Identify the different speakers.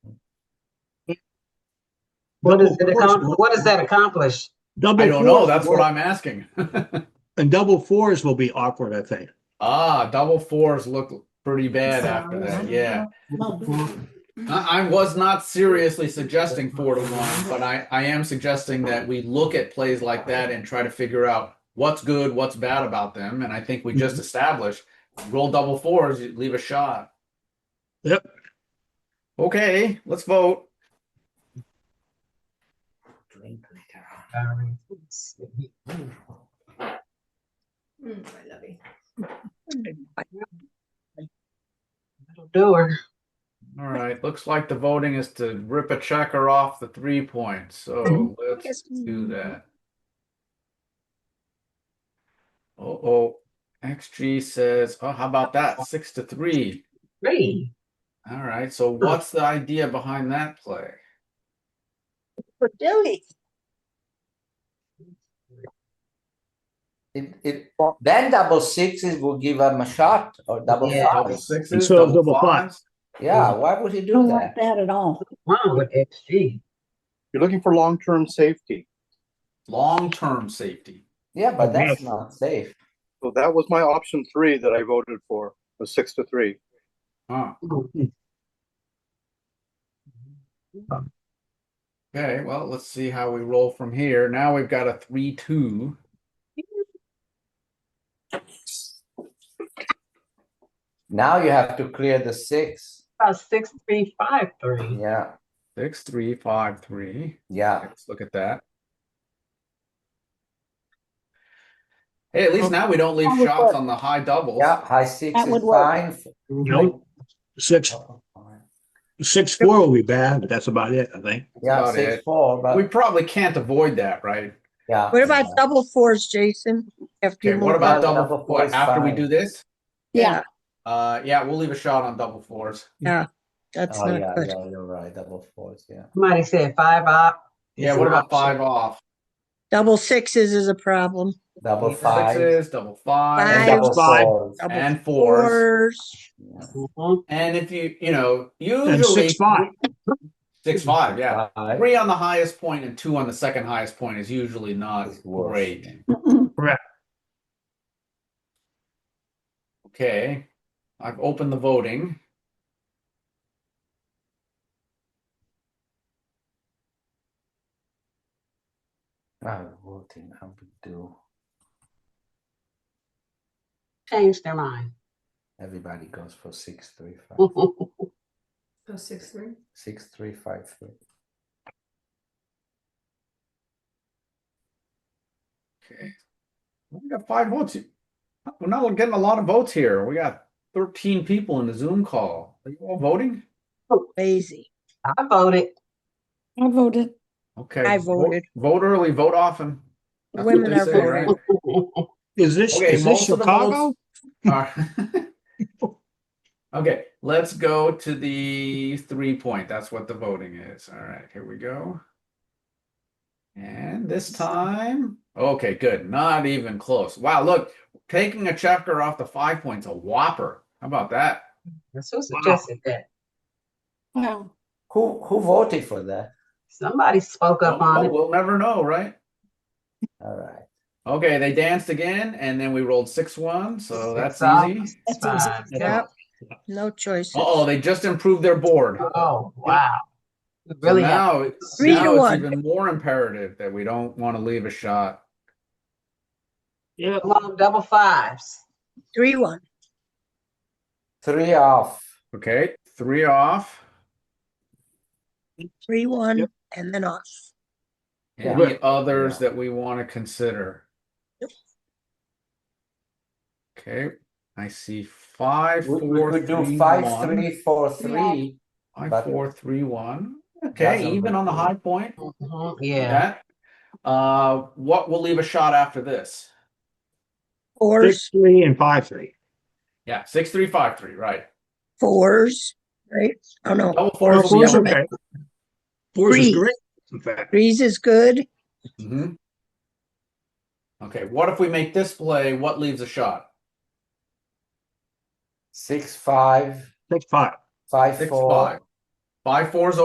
Speaker 1: What
Speaker 2: Double
Speaker 1: does it
Speaker 2: force
Speaker 1: accom-
Speaker 2: will-
Speaker 1: what does that accomplish?
Speaker 2: Double
Speaker 3: I don't know.
Speaker 2: fours
Speaker 3: That's what
Speaker 2: will-
Speaker 3: I'm asking.
Speaker 2: And double fours will be awkward, I think.
Speaker 3: ah, double fours look pretty
Speaker 2: uh,
Speaker 3: bad after that. Yeah. I, I was not seriously suggesting four to one, but I, I am suggesting that we look at plays like that and try to figure out what's good, what's bad about them. And I think we
Speaker 2: Mm-hmm.
Speaker 3: just established roll double fours, you leave a shot.
Speaker 2: Yep.
Speaker 3: Okay, let's vote.
Speaker 1: Um,
Speaker 4: Mm, I love it.
Speaker 1: Do her.
Speaker 3: All right, looks like the voting is to rip a checker off the three points. So
Speaker 2: Mhm.
Speaker 3: let's
Speaker 5: Yes.
Speaker 3: do that. Oh, oh, XG says, oh, how about that? Six to three.
Speaker 1: Three.
Speaker 3: All right, so what's the idea behind that play?
Speaker 5: But Billy,
Speaker 6: It, it, then double sixes will give him a shot or double
Speaker 1: Yeah.
Speaker 3: Double
Speaker 6: fives.
Speaker 3: sixes,
Speaker 2: So
Speaker 3: double
Speaker 2: double fives.
Speaker 3: fives?
Speaker 6: Yeah, why would he do
Speaker 5: don't like
Speaker 6: that?
Speaker 5: that at all.
Speaker 1: Wow, with XG.
Speaker 7: You're looking for long-term safety.
Speaker 3: Long-term safety.
Speaker 6: Yeah, but that's
Speaker 2: Yes.
Speaker 6: not safe.
Speaker 7: So that was my option three that I voted for, was six to three.
Speaker 3: Huh, okay, well, let's see how we roll from here. Now we've got a three-two.
Speaker 6: Now you have to clear the six.
Speaker 1: About six, three, five, three.
Speaker 6: Yeah,
Speaker 3: Six, three, five, three.
Speaker 6: yeah.
Speaker 3: Let's look at that. Hey, at least now we don't leave
Speaker 5: That would
Speaker 3: shots
Speaker 5: work.
Speaker 3: on the high doubles.
Speaker 6: Yeah, high six
Speaker 5: That
Speaker 6: is
Speaker 5: would work.
Speaker 6: fine.
Speaker 2: Nope. Six, six, four will be bad, but that's about it, I think.
Speaker 6: Yeah, uh,
Speaker 3: about
Speaker 6: six,
Speaker 3: it.
Speaker 6: four,
Speaker 3: We
Speaker 6: but
Speaker 3: probably can't avoid that, right?
Speaker 6: yeah. Oh,
Speaker 8: What about double fours, Jason? After you
Speaker 3: Okay, what
Speaker 8: move
Speaker 3: about
Speaker 8: on?
Speaker 6: Double
Speaker 3: double
Speaker 6: four
Speaker 3: four
Speaker 6: is
Speaker 3: after we
Speaker 6: fine.
Speaker 3: do this?
Speaker 5: Yeah,
Speaker 3: Uh, yeah, we'll leave a shot on double fours.
Speaker 8: That's
Speaker 6: Oh, yeah,
Speaker 8: not good.
Speaker 6: yeah, you're right, double fours, yeah.
Speaker 1: Somebody said five up.
Speaker 3: Yeah, what about five off?
Speaker 8: Double sixes is a problem.
Speaker 6: Double
Speaker 3: Double
Speaker 6: five.
Speaker 3: Sixes, double five,
Speaker 6: and
Speaker 8: Five.
Speaker 6: double
Speaker 2: Five.
Speaker 6: fours.
Speaker 8: Double
Speaker 3: and fours.
Speaker 6: Yeah.
Speaker 1: Mhm.
Speaker 3: And if you, you know,
Speaker 2: And
Speaker 3: usually
Speaker 2: six, five.
Speaker 3: Six, five, yeah.
Speaker 6: Five
Speaker 3: Three on the highest point and two on the second highest point is usually not
Speaker 6: is worse.
Speaker 3: great.
Speaker 5: Mm-mm.
Speaker 3: Okay, I've opened the voting.
Speaker 6: I would think I would do,
Speaker 1: Change their mind.
Speaker 6: everybody goes for six, three, five,
Speaker 1: Well,
Speaker 4: Go six three.
Speaker 6: six, three, five, three.
Speaker 3: Okay. We got five votes. We're not getting a lot of votes here. We got 13 people in the Zoom call. Are you all voting?
Speaker 8: Lazy.
Speaker 1: I voted.
Speaker 5: I voted.
Speaker 3: Okay.
Speaker 8: I
Speaker 3: vote-
Speaker 8: voted.
Speaker 3: Vote early, vote often. That's what
Speaker 8: Women
Speaker 3: they
Speaker 8: are
Speaker 3: say, right?
Speaker 8: voting.
Speaker 2: Is this,
Speaker 3: Okay,
Speaker 2: is this
Speaker 3: most of the
Speaker 2: Chicago?
Speaker 3: votes are- Okay, let's go to the three point. That's what the voting is. All right, here we go. And this time, okay, good. Not even close. Wow, look, taking a checker off the five points, a whopper. How about that?
Speaker 1: That's who suggested that.
Speaker 5: Wow.
Speaker 6: Who, who voted for that?
Speaker 1: Somebody spoke up
Speaker 3: Well,
Speaker 1: on it.
Speaker 3: We'll never know, right?
Speaker 6: All right,
Speaker 3: Okay, they danced again, and then we rolled six one, so
Speaker 1: Six
Speaker 3: that's
Speaker 1: up,
Speaker 3: easy.
Speaker 1: six five.
Speaker 8: Yep. No choices.
Speaker 3: Uh-oh, they just improved their board.
Speaker 1: Oh, wow. We
Speaker 3: So
Speaker 1: Really? have-
Speaker 3: now,
Speaker 8: Three
Speaker 3: now
Speaker 8: to
Speaker 3: it's
Speaker 8: one.
Speaker 3: even more imperative that we don't want to leave a shot.
Speaker 2: Yeah.
Speaker 1: Come on, double fives.
Speaker 8: Three one.
Speaker 6: three off.
Speaker 3: Okay, three off.
Speaker 8: Three one,
Speaker 2: Yep.
Speaker 8: and then off.
Speaker 3: Any
Speaker 2: Yeah.
Speaker 3: others that we want to consider?
Speaker 8: Yep.
Speaker 3: Okay, I see five,
Speaker 6: We we
Speaker 3: four,
Speaker 6: could do
Speaker 3: three,
Speaker 6: five,
Speaker 3: one.
Speaker 6: three, four, three.
Speaker 3: Five,
Speaker 6: but-
Speaker 3: four, three, one.
Speaker 6: That's
Speaker 3: Okay, even on the
Speaker 6: unbelievable.
Speaker 3: high point.
Speaker 1: Mhm,
Speaker 3: with
Speaker 1: Yeah.
Speaker 3: that. Uh, what we'll leave a shot after this?
Speaker 2: Six,
Speaker 8: Fours,
Speaker 2: three, and five, three.
Speaker 3: Yeah, six, three, five, three, right?
Speaker 8: fours, right? Oh no,
Speaker 3: Double
Speaker 2: Four,
Speaker 3: fours will be
Speaker 2: four's
Speaker 3: up.
Speaker 2: okay. Fours is
Speaker 8: Three.
Speaker 2: great, in fact.
Speaker 8: threes is good.
Speaker 3: Mhm. Okay, what if we make this play? What leaves a shot?
Speaker 6: Six, five,
Speaker 2: Six, five.
Speaker 6: five,
Speaker 3: Six,
Speaker 6: four.
Speaker 3: five. Five fours